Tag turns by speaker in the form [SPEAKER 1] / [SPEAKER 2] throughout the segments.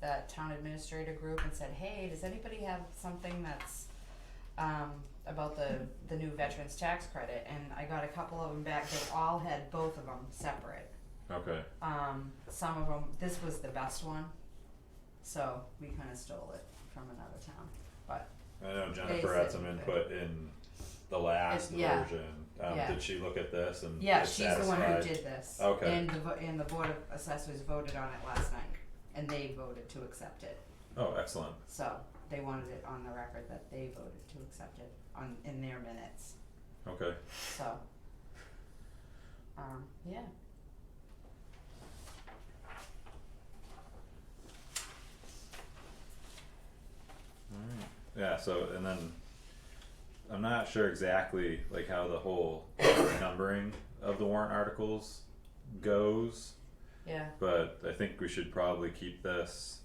[SPEAKER 1] the town administrator group and said, hey, does anybody have something that's um, about the, the new veterans tax credit? And I got a couple of them back, they all had both of them separate.
[SPEAKER 2] Okay,
[SPEAKER 1] Um, some of them, this was the best one, so we kinda stole it from another town, but
[SPEAKER 2] I know Jennifer had some
[SPEAKER 1] Basic.
[SPEAKER 2] input in the last
[SPEAKER 1] It- yeah.
[SPEAKER 2] version, um,
[SPEAKER 1] Yeah.
[SPEAKER 2] did she look at this and
[SPEAKER 1] yeah,
[SPEAKER 2] was
[SPEAKER 1] she's the one who
[SPEAKER 2] satisfied?
[SPEAKER 1] did this.
[SPEAKER 2] Okay.
[SPEAKER 1] And the vo- and the board of assessors voted on it last night, and they voted to accept it.
[SPEAKER 2] Oh, excellent,
[SPEAKER 1] So they wanted it on the record that they voted to accept it on, in their minutes,
[SPEAKER 2] okay,
[SPEAKER 1] so. Um, yeah.
[SPEAKER 2] alright, yeah, so and then. I'm not sure exactly like how the whole numbering of the warrant articles goes.
[SPEAKER 1] Yeah,
[SPEAKER 2] but I think we should probably keep this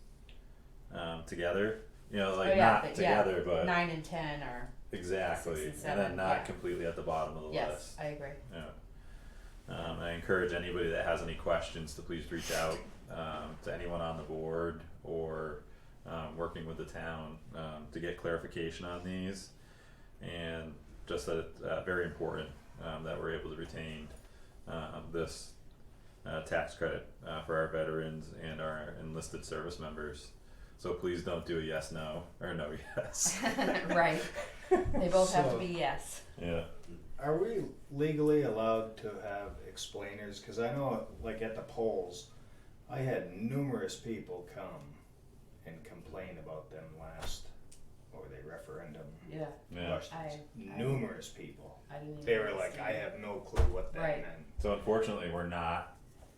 [SPEAKER 2] um, together. You know, like
[SPEAKER 1] Oh, yeah,
[SPEAKER 2] not
[SPEAKER 1] but- yeah.
[SPEAKER 2] together, but
[SPEAKER 1] nine and ten are,
[SPEAKER 2] exactly,
[SPEAKER 1] Six and
[SPEAKER 2] then
[SPEAKER 1] seven,
[SPEAKER 2] not
[SPEAKER 1] yeah.
[SPEAKER 2] completely at the bottom of the
[SPEAKER 1] yes,
[SPEAKER 2] list.
[SPEAKER 1] I agree,
[SPEAKER 2] Yeah. Um, I encourage anybody that has any questions to please reach out um, to anyone on the board or um, working with the town um, to get clarification on these, and just that it's uh, very important um, that we're able to retain um, this uh, tax credit uh, for our veterans and our enlisted service members. So please don't do a yes no or no yes.
[SPEAKER 1] right, they both have to
[SPEAKER 3] So-
[SPEAKER 1] be yes,
[SPEAKER 2] yeah.
[SPEAKER 3] Are we legally allowed to have explainers? Because I know, like at the polls, I had numerous people come and complain about them last, or the referendum.
[SPEAKER 1] yeah,
[SPEAKER 2] Yeah.
[SPEAKER 1] I,
[SPEAKER 3] questions. Numerous people.
[SPEAKER 1] I didn't even.
[SPEAKER 3] They were like, I have no clue what that
[SPEAKER 1] Right.
[SPEAKER 3] meant.
[SPEAKER 2] So unfortunately, we're not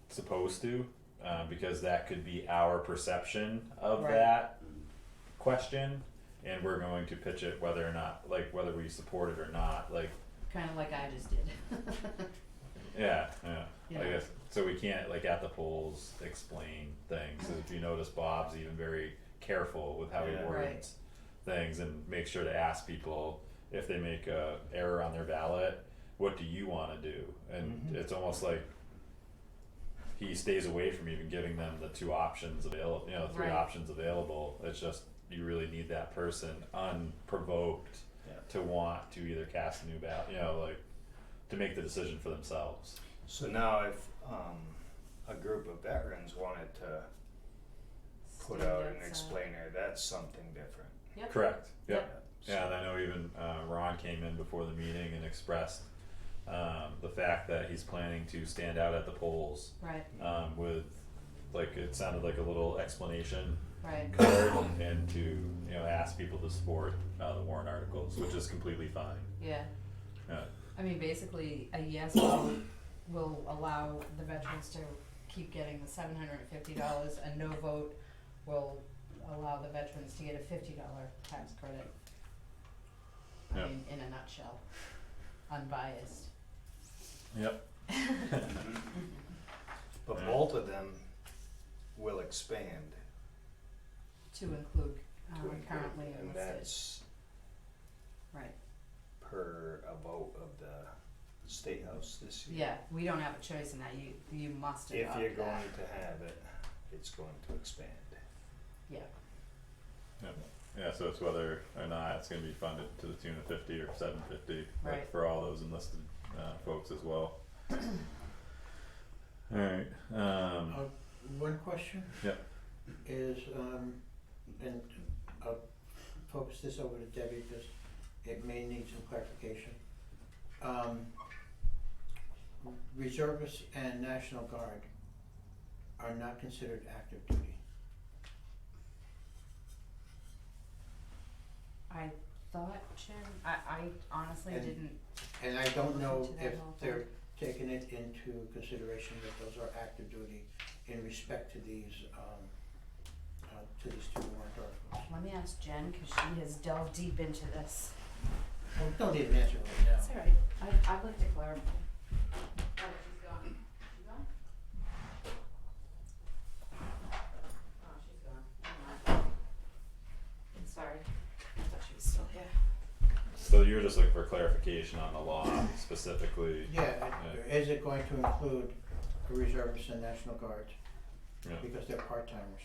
[SPEAKER 2] supposed to, uh, because that could be our perception of
[SPEAKER 1] Right.
[SPEAKER 2] that question, and we're going to pitch it whether or not, like whether we support it or not, like
[SPEAKER 1] Kinda like I just did.
[SPEAKER 2] yeah, yeah. I
[SPEAKER 1] Yeah.
[SPEAKER 2] guess so. We can't like at the polls explain things. If you notice, Bob's even very careful with how he
[SPEAKER 3] Yeah.
[SPEAKER 1] Right.
[SPEAKER 2] words things and make sure to ask people if they make a error on their ballot, what do you want to do? And
[SPEAKER 3] Mhm.
[SPEAKER 2] it's almost like he stays away from even giving them the two options available. You know, three
[SPEAKER 1] Right.
[SPEAKER 2] options available. It's just you really need that person unprovoked
[SPEAKER 3] Yeah.
[SPEAKER 2] to want to either cast a new ballot. You know, like to make the decision for themselves.
[SPEAKER 3] So now, if um, a group of veterans wanted to put
[SPEAKER 1] Stand
[SPEAKER 3] out an
[SPEAKER 1] outside.
[SPEAKER 3] explainer, that's something different.
[SPEAKER 1] Yep,
[SPEAKER 2] Correct. Yep.
[SPEAKER 3] So-
[SPEAKER 2] Yeah, and I know even uh, Ron came in before the meeting and expressed um, the fact that he's planning to stand out at the polls
[SPEAKER 1] right,
[SPEAKER 2] um, with, like, it sounded like a little explanation
[SPEAKER 1] right,
[SPEAKER 2] card and to, you know, ask people to support uh, the warrant articles, which is completely fine.
[SPEAKER 1] yeah.
[SPEAKER 2] Yeah.
[SPEAKER 1] I mean, basically, a yes vote will allow the veterans to keep getting the seven hundred and fifty dollars, a no vote will allow the veterans to get a fifty dollar tax credit.
[SPEAKER 2] Yeah.
[SPEAKER 1] I mean, in a nutshell, unbiased.
[SPEAKER 2] Yep.
[SPEAKER 3] But
[SPEAKER 2] Yeah.
[SPEAKER 3] both of them will expand
[SPEAKER 1] To include,
[SPEAKER 3] to
[SPEAKER 1] um,
[SPEAKER 3] include,
[SPEAKER 1] currently
[SPEAKER 3] and
[SPEAKER 1] enlisted,
[SPEAKER 3] that's
[SPEAKER 1] right,
[SPEAKER 3] per a vote of the state house this year.
[SPEAKER 1] yeah, we don't have a choice in that, you, you must
[SPEAKER 3] If
[SPEAKER 1] adopt that.
[SPEAKER 3] you're going to have it, it's going to expand.
[SPEAKER 2] Yeah, so it's whether or not it's gonna be funded to the tune of fifty or seven fifty,
[SPEAKER 1] Right.
[SPEAKER 2] like, for all those enlisted, uh, folks as well. Alright, um,
[SPEAKER 4] One question?
[SPEAKER 2] Yep.
[SPEAKER 4] Is, um, and I'll focus this over to Debbie because it may need some clarification. Um, reservists and National Guard are not considered active duty.
[SPEAKER 1] I thought, Jim, I, I honestly
[SPEAKER 4] And-
[SPEAKER 1] didn't,
[SPEAKER 4] And I don't know
[SPEAKER 1] To that
[SPEAKER 4] if
[SPEAKER 1] whole
[SPEAKER 4] they're taking it into consideration that those are active duty in respect to these, um, uh, to these two warrant articles.
[SPEAKER 1] let me ask Jen, cause she has delved deep into this.
[SPEAKER 4] Well, don't even answer right now.
[SPEAKER 1] It's all right, I, I'd like to clarify. Oh, she's gone. She gone? Oh, she's gone, never mind. I'm sorry, I thought she was still here.
[SPEAKER 2] So you were just looking for clarification on the law specifically?
[SPEAKER 4] Yeah, it- is it going to include the reservists and National Guards?
[SPEAKER 2] Yeah.
[SPEAKER 4] Because they're part-timers.